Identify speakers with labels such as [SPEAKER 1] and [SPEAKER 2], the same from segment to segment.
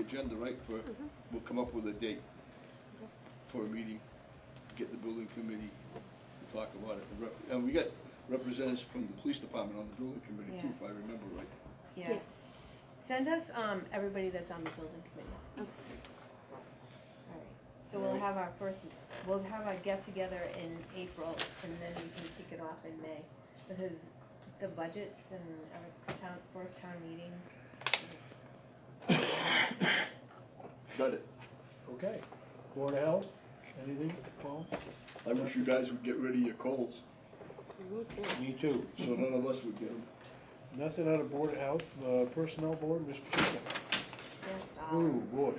[SPEAKER 1] agenda, right, for, we'll come up with a date for a meeting, get the building committee to talk about it. The rep- And we got representatives from the police department on the building committee too,
[SPEAKER 2] Yeah.
[SPEAKER 1] if I remember right.
[SPEAKER 2] Yeah.
[SPEAKER 3] Yes.
[SPEAKER 2] Send us, um, everybody that's on the building committee.
[SPEAKER 3] Okay.
[SPEAKER 2] Alright, so we'll have our first, we'll have our get-together in April, and then we can kick it off in May. Because the budgets and our town, first town meeting,
[SPEAKER 1] Got it.
[SPEAKER 4] Okay, Board of Health, anything, Paul?
[SPEAKER 1] I wish you guys would get rid of your colds,
[SPEAKER 3] Me too.
[SPEAKER 4] Me too.
[SPEAKER 1] so none of us would get them.
[SPEAKER 4] Nothing out of Board of Health, uh, Personnel Board, Mr. Chico.
[SPEAKER 2] yes,
[SPEAKER 4] Ooh,
[SPEAKER 2] um,
[SPEAKER 4] boy.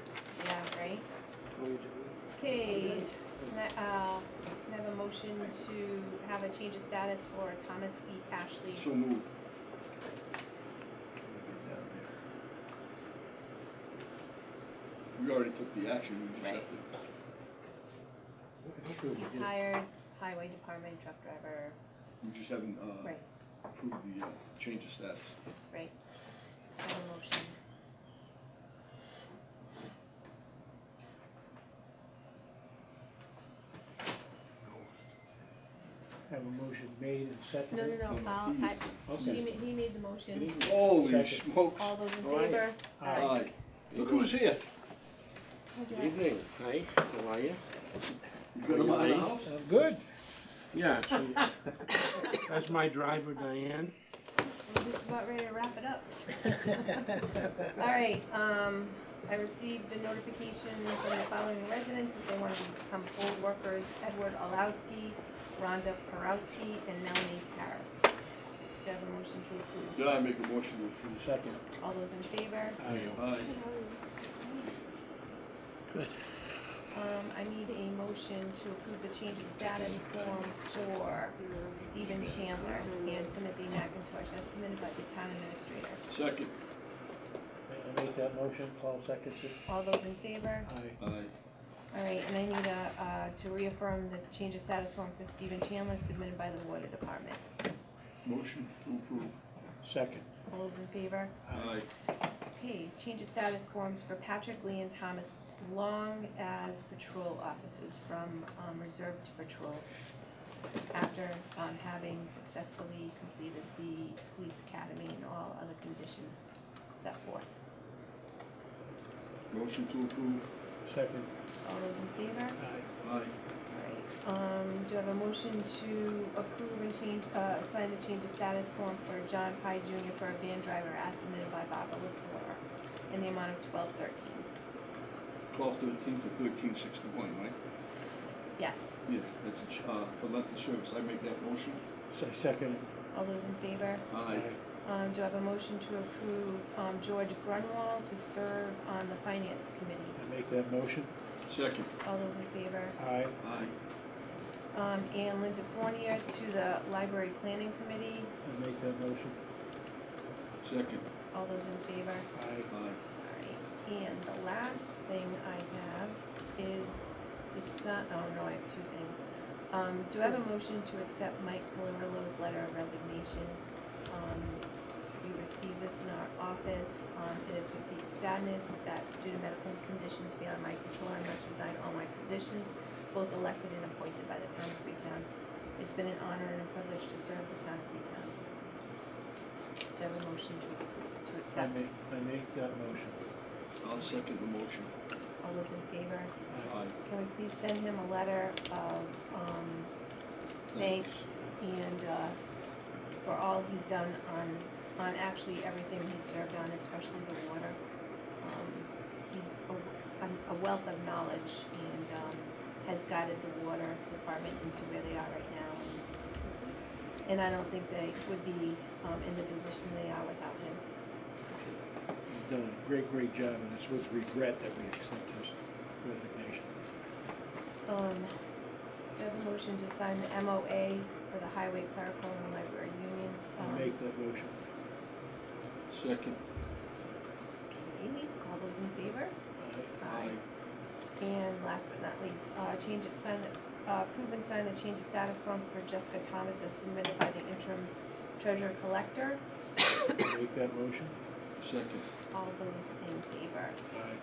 [SPEAKER 2] yeah, right? Okay, ne- uh, can I have a motion to have a change of status for Thomas E. Ashley.
[SPEAKER 1] So moved. We already took the action, we just have to,
[SPEAKER 2] He's hired highway department truck driver,
[SPEAKER 1] we just haven't, uh,
[SPEAKER 2] right,
[SPEAKER 1] approved the, uh, change of status.
[SPEAKER 2] right. Have a motion.
[SPEAKER 4] Have a motion made and
[SPEAKER 2] No,
[SPEAKER 4] seconded.
[SPEAKER 2] no,
[SPEAKER 1] No,
[SPEAKER 2] no, I'll,
[SPEAKER 5] Mm-hmm.
[SPEAKER 1] he-
[SPEAKER 2] I, she,
[SPEAKER 4] Okay.
[SPEAKER 2] ma- he made the motion.
[SPEAKER 1] Holy
[SPEAKER 4] Second.
[SPEAKER 1] smokes.
[SPEAKER 2] All those in
[SPEAKER 5] All right.
[SPEAKER 2] favor?
[SPEAKER 4] Aye.
[SPEAKER 1] Look who's here.
[SPEAKER 5] Good evening. Hi, how are you?
[SPEAKER 1] You got him out of the house?
[SPEAKER 4] Uh, Good.
[SPEAKER 5] Yeah, she- that's my driver Diane.
[SPEAKER 2] We're just about ready to wrap it up. All right, um, I received a notification from the following residents that they want to become poll workers, Edward Olowski, Rhonda Perowski, and Melanie Paris. Do you have a motion to approve?
[SPEAKER 1] Yeah, I make a motion to approve.
[SPEAKER 4] Second.
[SPEAKER 2] All those in favor?
[SPEAKER 1] Aye.
[SPEAKER 2] Um, I need a motion to approve the change of status form for Stephen Chandler and Timothy McIntosh, as submitted by the town administrator.
[SPEAKER 1] Second.
[SPEAKER 4] I make that motion, Paul seconds it.
[SPEAKER 2] All those in favor?
[SPEAKER 4] Aye.
[SPEAKER 1] Aye.
[SPEAKER 2] All right, and I need a, uh, to reaffirm the change of status form for Stephen Chandler submitted by the water department.
[SPEAKER 1] Motion to approve.
[SPEAKER 4] Second.
[SPEAKER 2] All those in favor?
[SPEAKER 1] Aye.
[SPEAKER 2] Okay, change of status forms for Patrick Lee and Thomas Long as patrol officers from, um, reserve to patrol after, um, having successfully completed the police academy and all other conditions set forth.
[SPEAKER 1] Motion to approve.
[SPEAKER 4] Second.
[SPEAKER 2] All those in favor?
[SPEAKER 4] Aye.
[SPEAKER 1] Aye.
[SPEAKER 2] Alright, um, do I have a motion to approve and change, uh, assign the change of status form for John Pye Junior for a van driver as submitted by Barbara LaFleur in the amount of twelve thirteen?
[SPEAKER 1] Twelve thirteen to thirteen sixty-one, right?
[SPEAKER 2] Yes,
[SPEAKER 1] Yes, that's, a ch- uh, for length of service. I make that motion.
[SPEAKER 4] Say second.
[SPEAKER 2] all those in favor?
[SPEAKER 1] Aye.
[SPEAKER 2] Um, do I have a motion to approve, um, George Grunwald to serve on the finance committee?
[SPEAKER 4] I make that motion.
[SPEAKER 1] Second.
[SPEAKER 2] All those in favor?
[SPEAKER 4] Aye.
[SPEAKER 1] Aye.
[SPEAKER 2] Um, and Linda Fornier to the library planning committee?
[SPEAKER 4] I make that motion.
[SPEAKER 1] Second.
[SPEAKER 2] All those in favor?
[SPEAKER 4] Aye.
[SPEAKER 1] Aye.
[SPEAKER 2] Alright, and the last thing I have is, this, oh no, I have two things. Um, do I have a motion to accept Mike Colorillo's letter of resignation? Um, we received this in our office, um, it is with deep sadness that due to medical conditions beyond my control, I must resign all my positions, both elected and appointed by the town of Freetown. It's been an honor and a privilege to serve the town of Freetown. Do I have a motion to, to
[SPEAKER 4] I
[SPEAKER 2] accept?
[SPEAKER 4] make, I make that motion.
[SPEAKER 1] I'll second the motion.
[SPEAKER 2] All those in favor,
[SPEAKER 4] Aye.
[SPEAKER 1] Aye.
[SPEAKER 2] can we please send him a letter of, um, thanks and, uh, for all he's done on, on actually everything he's served on, especially the water. Um, He's a- a, a wealth of knowledge and, um, has guided the water department into where they are right now. And I don't think they would be, um, in the position they are without him.
[SPEAKER 4] He's done a great, great job, and it's with regret that we accept his resignation.
[SPEAKER 2] Um, do I have a motion to sign the MOA for the Highway Clerical and Library Union? Um,
[SPEAKER 4] I make that motion.
[SPEAKER 1] Second.
[SPEAKER 2] okay, all those in favor?
[SPEAKER 4] Aye.
[SPEAKER 1] Aye.
[SPEAKER 2] And last but not least, uh, change it, sign the, uh, approve and sign the change of status form for Jessica Thomas as submitted by the interim treasurer collector.
[SPEAKER 4] I Make that motion.
[SPEAKER 1] Second.
[SPEAKER 2] All those in favor?
[SPEAKER 4] Aye.